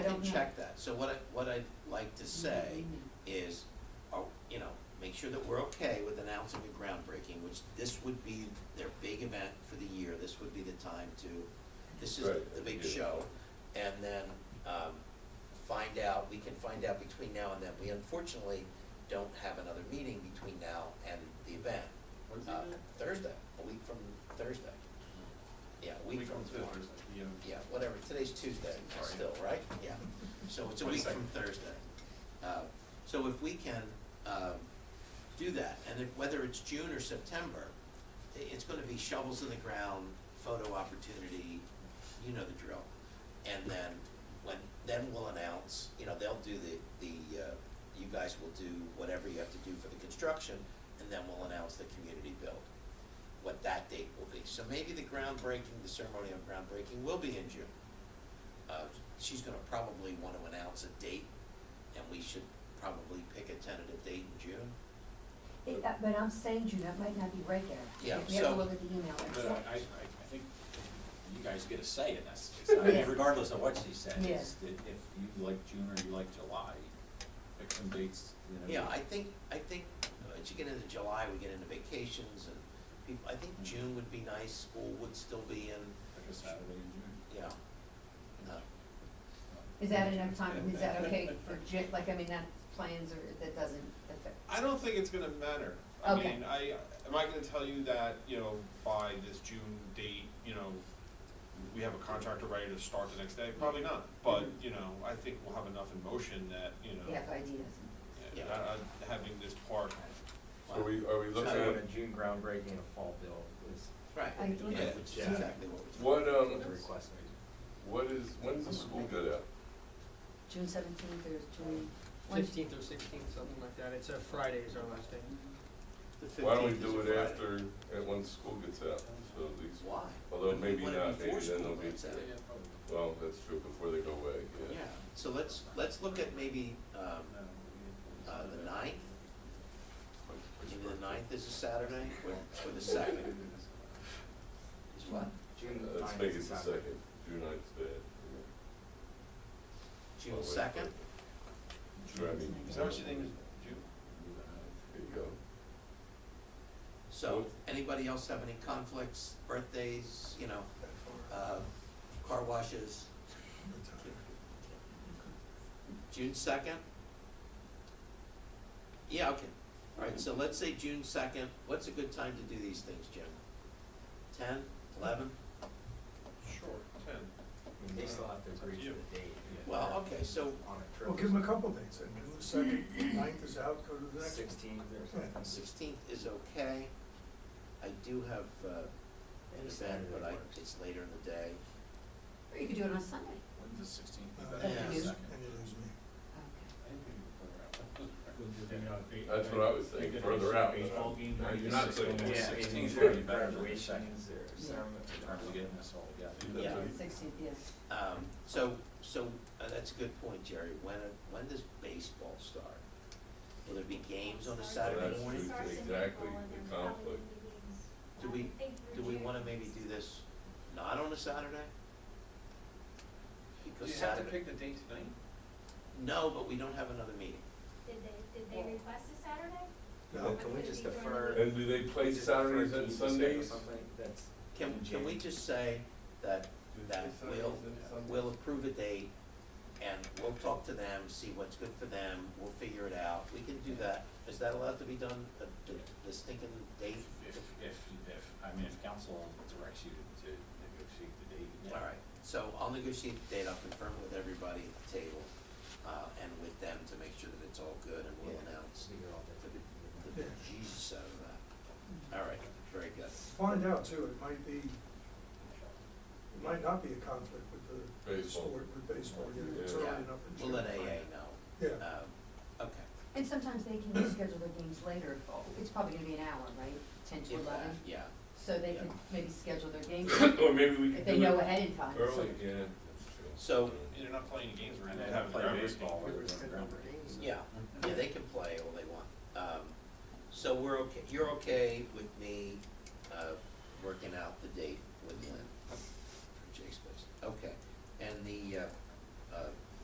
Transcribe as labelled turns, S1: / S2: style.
S1: go check that. So what I, what I'd like to say is, uh, you know, make sure that we're okay with announcing a groundbreaking, which this would be their big event for the year. This would be the time to, this is
S2: Right,
S1: the big
S2: yeah.
S1: show. And then, um, find out, we can find out between now and then. We unfortunately don't have another meeting between now and the event.
S3: When's the
S1: Uh,
S3: event?
S1: Thursday, a week from Thursday. Yeah, a week from tomorrow.
S3: Thursday, yeah.
S1: Yeah, whatever, today's Tuesday
S3: Sorry.
S1: still, right? Yeah, so it's a week from Thursday. Uh, So if we can um, do that, and if, whether it's June or September, i- it's gonna be shovels in the ground, photo opportunity, you know the drill. And then, when, then we'll announce, you know, they'll do the, the, uh, you guys will do whatever you have to do for the construction, and then we'll announce the community build what that date will be. So maybe the groundbreaking, the ceremony of groundbreaking will be in June. Uh, she's gonna probably wanna announce a date, and we should probably pick a tentative date in June.
S4: It- uh, But I'm saying, June, that might not be right there.
S1: Yeah,
S4: If we have to
S1: so-
S4: look at the email. it's-
S5: But I, I, I I think you guys get a say in this, It's not- I mean,
S4: Yeah.
S5: regardless of what she says.
S4: Yeah.
S5: If if you like June or you like July, pick some dates, you know.
S1: Yeah, I think, I think, uh, as you get into July, we get into vacations and people, I think June would be nice, school would still be in,
S5: Like a Saturday in June.
S1: yeah. Uh,
S4: Is that enough time, is that okay for Ju, like, I mean, that plans or, that doesn't affect,
S3: I don't think it's gonna matter. I
S4: Okay.
S3: mean, I, am I gonna tell you that, you know, by this June date, you know, we have a contractor ready to start the next day? Probably not, but,
S1: Mm-hmm.
S3: you know, I think we'll have enough in motion that, you
S4: you
S3: know,
S4: have ideas?
S3: yeah, I- I- having this part,
S2: So we, are we looking
S1: So-
S2: at,
S6: June groundbreaking and a fall bill is
S1: Right,
S4: I
S1: yeah,
S4: think-
S1: which is
S6: Yeah.
S1: exactly what we're
S2: what, um,
S6: the request made.
S2: what is, when's the school get out?
S4: June seventeenth or June?
S7: Fifteenth or sixteenth, something like that. It's a Friday is our last day.
S1: talking
S2: Why
S1: about.
S2: don't we
S1: The 15th
S2: do
S1: is
S2: it
S1: a Friday.
S2: after, at when school gets out, so at least,
S1: Why?
S2: although maybe
S1: Wouldn't it
S2: not,
S1: be
S2: maybe
S1: for
S2: then they'll
S1: school
S2: be,
S1: nights out?
S5: Yeah, probably.
S2: well, that's true, before they go away, yeah.
S1: Yeah, so let's, let's look at maybe, um,
S5: No, we-
S1: uh, the ninth,
S2: Like, like-
S1: maybe the ninth is a Saturday, or, or the second is what?
S6: June
S2: Uh, Let's
S6: ninth
S2: make it
S6: is
S2: the
S6: Saturday.
S2: second, June ninth's bad. yeah. Oh,
S1: June
S2: wait,
S1: second?
S2: wait. Sure, I mean.
S3: is that what you think is June?
S2: There you go.
S1: So, anybody else have any conflicts, birthdays, you know, uh, car washes? June second? Yeah, okay, all right, so let's say June second, what's a good time to do these things, Jim? Ten, eleven?
S3: Sure, ten.
S6: They still have to agree to
S3: Yeah.
S6: the date.
S1: Well, okay, so
S6: On a trip.
S8: Well, give them a couple dates, I mean, the second, ninth is out, go to the next.
S6: Sixteenth or something.
S1: Sixteenth is okay. I do have uh, an
S6: Any
S1: event,
S6: Saturday
S1: but I,
S6: works.
S1: it's later in the day.
S4: Or you could do it on Sunday.
S5: When's the sixteenth?
S8: Uh,
S1: Yeah.
S8: And you lose
S1: Yeah.
S8: me.
S4: Okay.
S2: That's what I was saying, further out. than
S3: Baseball game,
S2: I-
S3: maybe
S2: You're not
S3: six
S2: looking
S3: months.
S2: at
S6: Yeah, I mean,
S5: 16th
S6: these
S5: would
S6: are
S5: be better.
S6: graduations or ceremony.
S5: Are we getting this all together?
S2: Yeah.
S1: Yeah.
S4: Sixteenth, yes.
S1: Um, So, so uh, that's a good point, Jerry. When, uh, when does baseball start? Will there be games on a Saturday
S2: That's
S1: morning?
S2: true. exactly the conflict.
S1: Do we- Do we want to maybe do this not on a Saturday?
S3: Do
S1: Because
S3: you have to
S1: Saturday,
S3: pick the date tonight?
S1: no, but we don't have another meeting.
S9: Did they, did they request a Saturday?
S8: No,
S6: Can we just defer?
S2: And do they play
S6: just defer
S2: Saturdays
S6: June
S2: and
S6: to Saturday or
S2: Sundays?
S6: something? That's
S1: Can,
S6: in
S1: can we
S6: June.
S1: just say that, that we'll, we'll approve a date and we'll talk to them, see what's good for them, we'll figure it out, we can do that. Is that allowed to be done, the, the, the stinking date?
S5: If, if, if, I mean, if council directs you to negotiate the date. yeah.
S1: All right, so I'll negotiate the date, I'll confirm with everybody at the table, uh, and with them to make sure that it's all good and we'll
S6: Yeah.
S1: announce
S6: So you're all
S1: the,
S6: different.
S1: the Jesus out of that. All right, very good.
S8: Find out too, it might be, it might not be a conflict with the
S2: Baseball.
S8: sport, with baseball, you know, it's
S2: Yeah.
S8: early
S1: Yeah,
S8: enough in
S1: we'll let
S8: June.
S1: AA know.
S8: Yeah,
S1: Um, okay.
S4: And sometimes they can schedule their games later, it's probably gonna be an hour, right, ten to
S1: If that-
S4: eleven?
S1: Yeah,
S4: So they could maybe schedule their games
S2: Or maybe we
S4: if
S2: could
S4: they
S2: do
S4: know
S2: it
S4: ahead in time. so-
S2: early, yeah, that's true.
S1: So-
S2: Yeah.
S3: You're not playing games, we're
S5: And
S3: gonna
S5: then
S3: have
S5: play
S3: ground
S5: baseball.
S3: baseball.
S5: we're doing groundbreaking.
S1: yeah, yeah, they can play all they want. Um, so we're okay, you're okay with me, uh, working out the date with Lynn? for Jake's place, okay. And the, uh, uh,